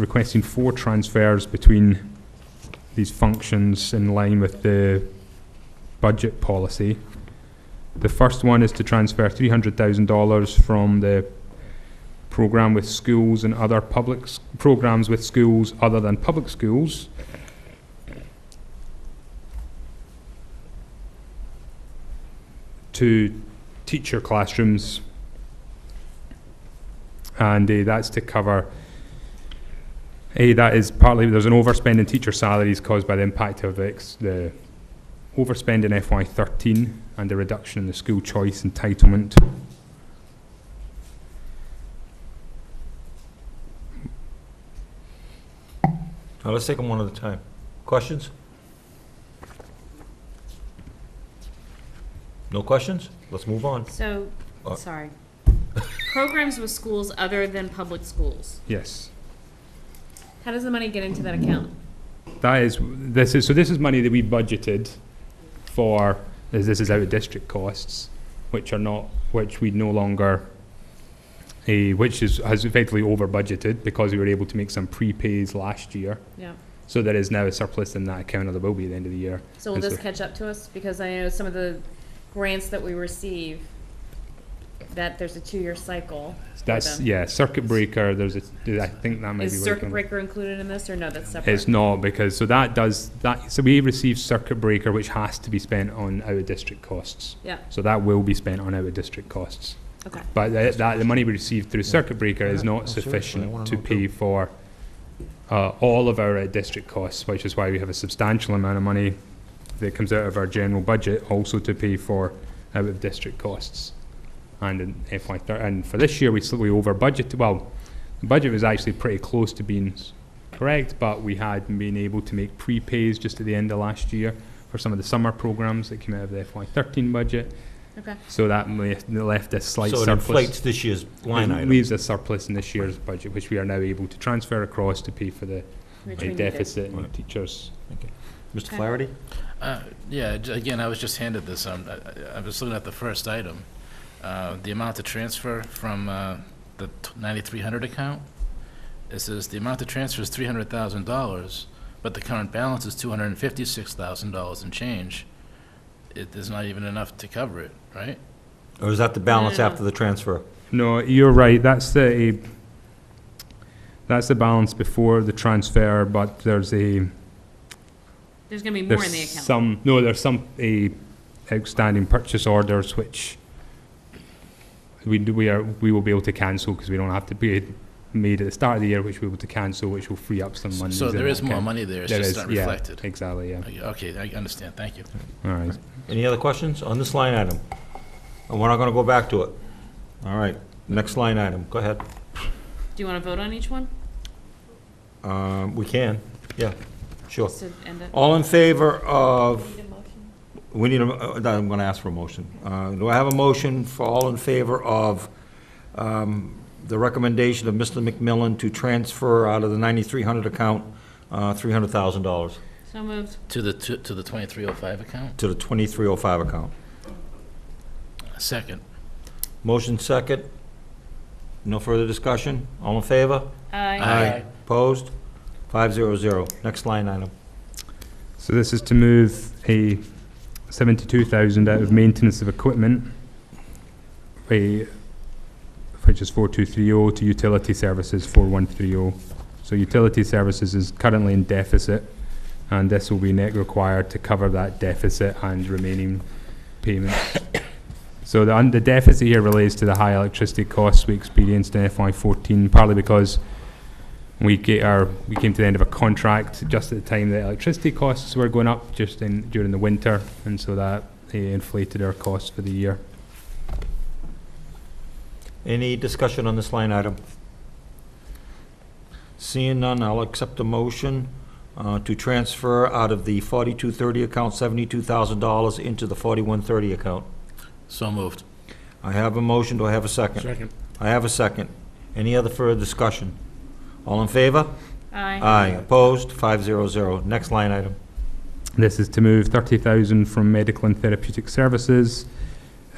requesting four transfers between these functions in line with the budget policy. The first one is to transfer three hundred thousand dollars from the program with schools and other public s- programs with schools other than public schools. To teacher classrooms, and uh, that's to cover a, that is partly, there's an overspend in teacher salaries caused by the impact of the, ex- the overspend in FY thirteen and the reduction in the school choice entitlement. Now, let's take them one at a time. Questions? No questions? Let's move on. So, Uh, sorry. Programs with schools other than public schools. Yes, How does the money get into that account? that is, this is, so this is money that we budgeted for, as this is out of district costs, which are not, which we no longer, eh, which is, has effectively over budgeted because we were able to make some prepays last year. Yeah. So there is now a surplus in that account, or there will be at the end of the year. So will And this so- catch up to us? Because I know some of the grants that we receive, that there's a two-year cycle. That's, them. yeah, circuit breaker, there's a, I think that might be. Is what it circuit can- breaker included in this, or no, that's separate? It's not, because, so that does, that, so we receive circuit breaker, which has to be spent on out-of-district costs. Yeah. So that will be spent on out-of-district costs. Okay, But that, that, the money we receive through circuit breaker is Yeah, not no, seriously, I sufficient wanna to know pay too. for, uh, all of our out-of-district costs, which is why we have a substantial amount of money that comes out of our general budget, also to pay for out-of-district costs. And in FY thir- and for this year, we slightly over budgeted, well, the budget was actually pretty close to being s- correct, but we had been able to make prepays just at the end of last year for some of the summer programs that came out of the FY thirteen budget, okay. so that left, left a slight So it surplus. inflates this year's line It item. Leaves a surplus in this year's budget, which we are now able to transfer across to pay for the Which the we needed. deficit in Right. teachers. Mr. Okay. Flaherty? Uh, Yeah, j- again, I was just handed this, um, I I- I was looking at the first item, uh, the amount to transfer from uh, the t- 9,300 account. It says the amount to transfer is $300,000, but the current balance is $256,000 and change. It is not even enough to cover it, right? Or is that the balance no, no. after the transfer? No, you're right. That's the eh, that's the balance before the transfer, but there's a There's gonna be more in the there's account. some no there's some a outstanding purchase orders which we do, we are we will be able to cancel because we don't have to be made at the start of the year, which we'll be able to cancel, which will free up some money. So there is more money there, it's There just is, not yeah. reflected. Exactly. Yeah. Okay, I understand, thank you. All right. Any other questions on this line item? And we're not going to go back to it. All right, next line item, go ahead. Do you wanna vote on each one? Um, We can, yeah, sure. Just to end it? All in favor of, we need a, uh, no, I'm going to ask for a motion. Uh, Do I have a motion for all in favor of um, the recommendation of Mr. McMillan to transfer out of the 9,300 account, uh, $300,000 So moved. To the two- to the 2305 account? to the 2305 account? Second. Motion second. No further discussion? All in favor? Aye. Aye. Opposed? 500. Next line item. So this is to move a seventy-two thousand out of maintenance of equipment, a, which is four two three oh, to utility services four one three oh. So utility services is currently in deficit, and this will be net required to cover that deficit and remaining payments. So the, un- the deficit here relates to the high electricity costs we experienced in FY fourteen, partly because we get our we came to the end of a contract just at the time that electricity costs were going up just in during the winter and so that they inflated our costs for the year Any discussion on this line item? Seeing none, I'll accept a motion uh, to transfer out of the 4230 account $72,000 into the 4130 account. So moved. I have a motion, do I have a second? Second. I have a second. Any other further discussion? All in favor? Aye. Aye. Opposed? 500. Next line item. this is to move 30,000 from medical and therapeutic services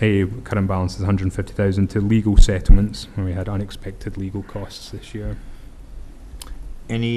a current balance is 150,000 to legal settlements when we had unexpected legal costs this year Any